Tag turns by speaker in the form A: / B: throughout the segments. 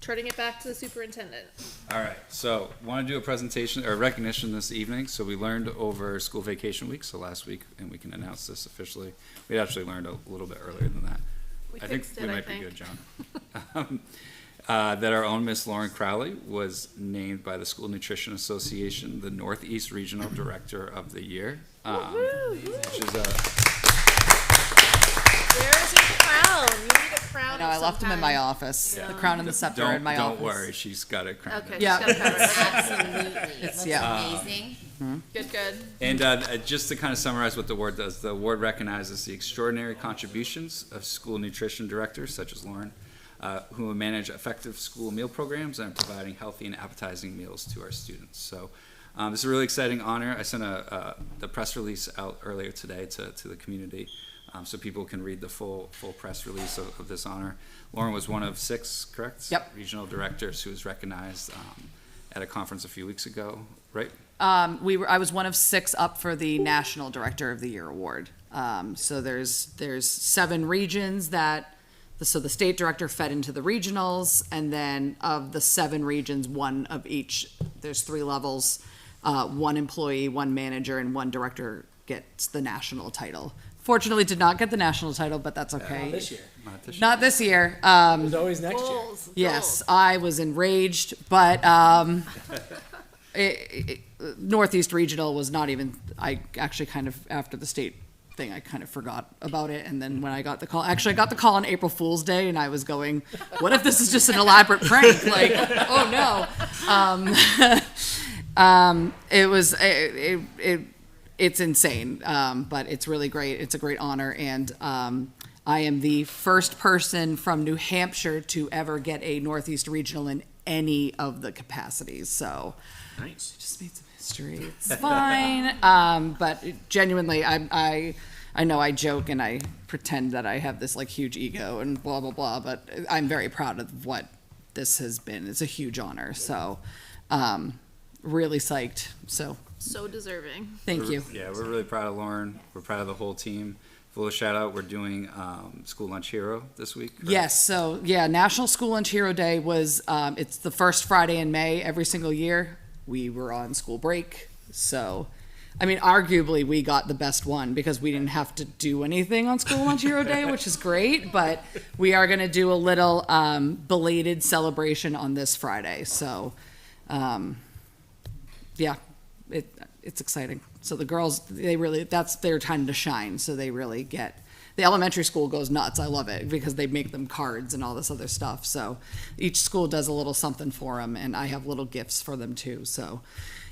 A: turning it back to the superintendent.
B: All right, so want to do a presentation or recognition this evening. So we learned over school vacation week, so last week, and we can announce this officially. We actually learned a little bit earlier than that.
A: We
B: I think
A: fixed it,
B: we
A: I
B: might be
A: think.
B: good, John. Um, uh, That our own Miss Lauren Crowley was named by the School Nutrition Association the Northeast Regional Director of the Year. Um, She's a
A: Where's your crown? You need a crown.
C: No, I left him in my office. The crown and the scepter
B: Don't,
C: in my
B: don't
C: office.
B: worry, she's got it crowned.
A: Okay.
C: Yeah.
A: she's got it covered.
D: Absolutely. It looks
C: yeah.
B: Uh,
D: amazing.
A: Good, good.
B: And uh, uh, just to kind of summarize what the award does, the award recognizes the extraordinary contributions of school nutrition directors such as Lauren, uh, who manage effective school meal programs and are providing healthy and appetizing meals to our students. So um, this is a really exciting honor. I sent a, uh, the press release out earlier today to, to the community um, so people can read the full full press release of, of this honor. Lauren was one of six, correct?
C: Yep.
B: Regional directors who was recognized um, at a conference a few weeks ago, right?
C: Um, we were, I was one of six up for the National Director of the Year award. Um, so there's there's seven regions that so the state director fed into the regionals, and then of the seven regions, one of each. There's three levels: uh, one employee, one manager, and one director gets the national title. Fortunately, did not get the national title, but that's okay.
E: This year.
B: Not this
C: Not this year. Um,
E: There's always next year.
A: Goals.
C: Yes,
A: goals.
C: I was enraged, but um, it, it, Northeast Regional was not even. I actually kind of after the state thing, I kind of forgot about it, and then when I got the call, actually I got the call on April Fool's Day, and I was going, "What if this is just an elaborate prank? Like, oh no." it was it, it, it it's insane um, but it's really great it's a great honor and um, i am the first person from new hampshire to ever get a northeast regional in any of the capacities so
E: Nice.
C: just made some history it's fine um, but genuinely i i I know I joke and I pretend that I have this like huge ego and blah blah blah, but I'm very proud of what this has been. It's a huge honor, so um, really psyched. So
A: So deserving.
C: Thank
B: We're-
C: you.
B: Yeah, we're really proud of Lauren. We're proud of the whole team. Full of shout out, we're doing um, School Lunch Hero this week. correct?
C: Yes, so yeah, National School Lunch Hero Day was um, it's the first Friday in May every single year. We were on school break, so I mean, arguably we got the best one because we didn't have to do anything on School Lunch Hero Day, which is great. But we are going to do a little um, belated celebration on this Friday. So, um, yeah, it it's exciting. So the girls, they really that's their time to shine. So they really get the elementary school goes nuts. I love it because they make them cards and all this other stuff. So each school does a little something for them, and I have little gifts for them too. So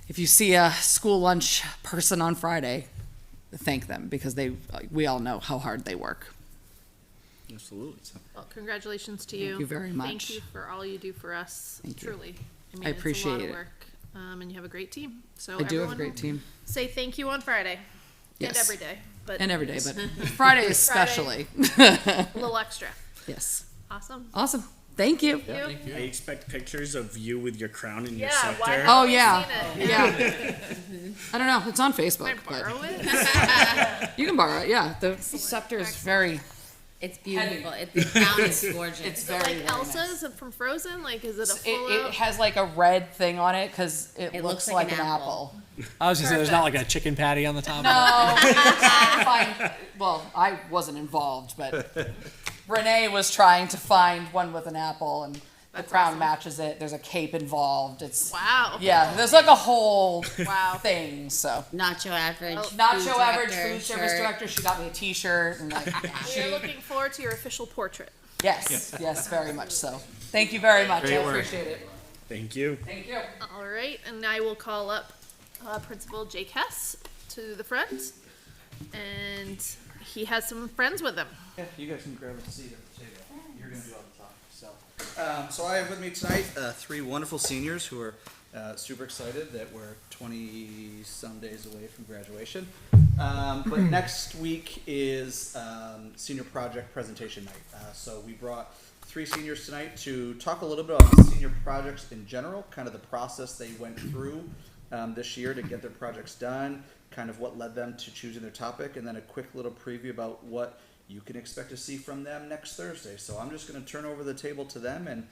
C: if you see a school lunch person on Friday, thank them because they we all know how hard they work.
E: Absolutely.
A: Well, congratulations to you.
C: you very
A: Thank
C: much.
A: you for all you do for us,
C: Thank you.
A: truly. mean,
C: I
A: it's a lot
C: appreciate
A: of
C: it.
A: work, Um, and you have a great team. So
C: I do have
A: Oh,
C: a
A: everyone
C: great team
A: Say thank you on Friday. And
C: Yes.
A: every day, but
C: and every day, but Friday especially.
A: a little extra.
C: yes,
A: Awesome.
C: awesome. Thank you.
A: Thank you.
E: I expect pictures of you with your crown and
A: Yeah,
E: your scepter.
A: why haven't
C: Oh,
A: we
C: yeah.
A: seen it?
C: Yeah. I don't know. It's on
A: Can
C: Facebook,
A: I
C: but
A: borrow it?
C: you can borrow it. Yeah, the scepter is very.
D: It's beautiful. It, the crown is gorgeous.
C: It's
A: Like
C: very. very nice.
A: Elsa's from Frozen? Like, is it a
C: It,
A: full
C: it has like a red thing on it because it,
D: It
C: looks,
D: looks
C: like,
D: like
C: an
D: an
C: apple.
F: I was gonna say there's not like a chicken patty on the top. of
C: Find- well, I wasn't involved, but Renee was trying to find one with an apple, and the
A: That's
C: crown
A: awesome.
C: matches it. There's a cape involved. It's
A: Wow.
C: yeah. There's like a whole
A: Wow.
C: thing. So
D: Not your average.
C: not
D: food
C: show average
D: director
C: food service
D: shirt.
C: director. She got me a T-shirt and like
A: We're
C: she,
A: looking forward to your official portrait.
C: yes, yes, very much so. Thank you very much. I
B: Great work.
C: appreciate it.
E: Thank you.
C: Thank you.
A: All right, and I will call up uh, Principal Jake Hess to the front, and he has some friends with him.
G: Yeah, you guys can grab a seat at the table. You're going to do all the talking. So, um, so I have with me tonight uh, three wonderful seniors who are uh, super excited that we're 20 some days away from graduation. Um, but next week is um, senior project presentation night. Uh, so we brought three seniors tonight to talk a little bit about the senior projects in general, kind of the process they went through um, this year to get their projects done, kind of what led them to choosing their topic, and then a quick little preview about what you can expect to see from them next Thursday. So I'm just going to turn over the table to them and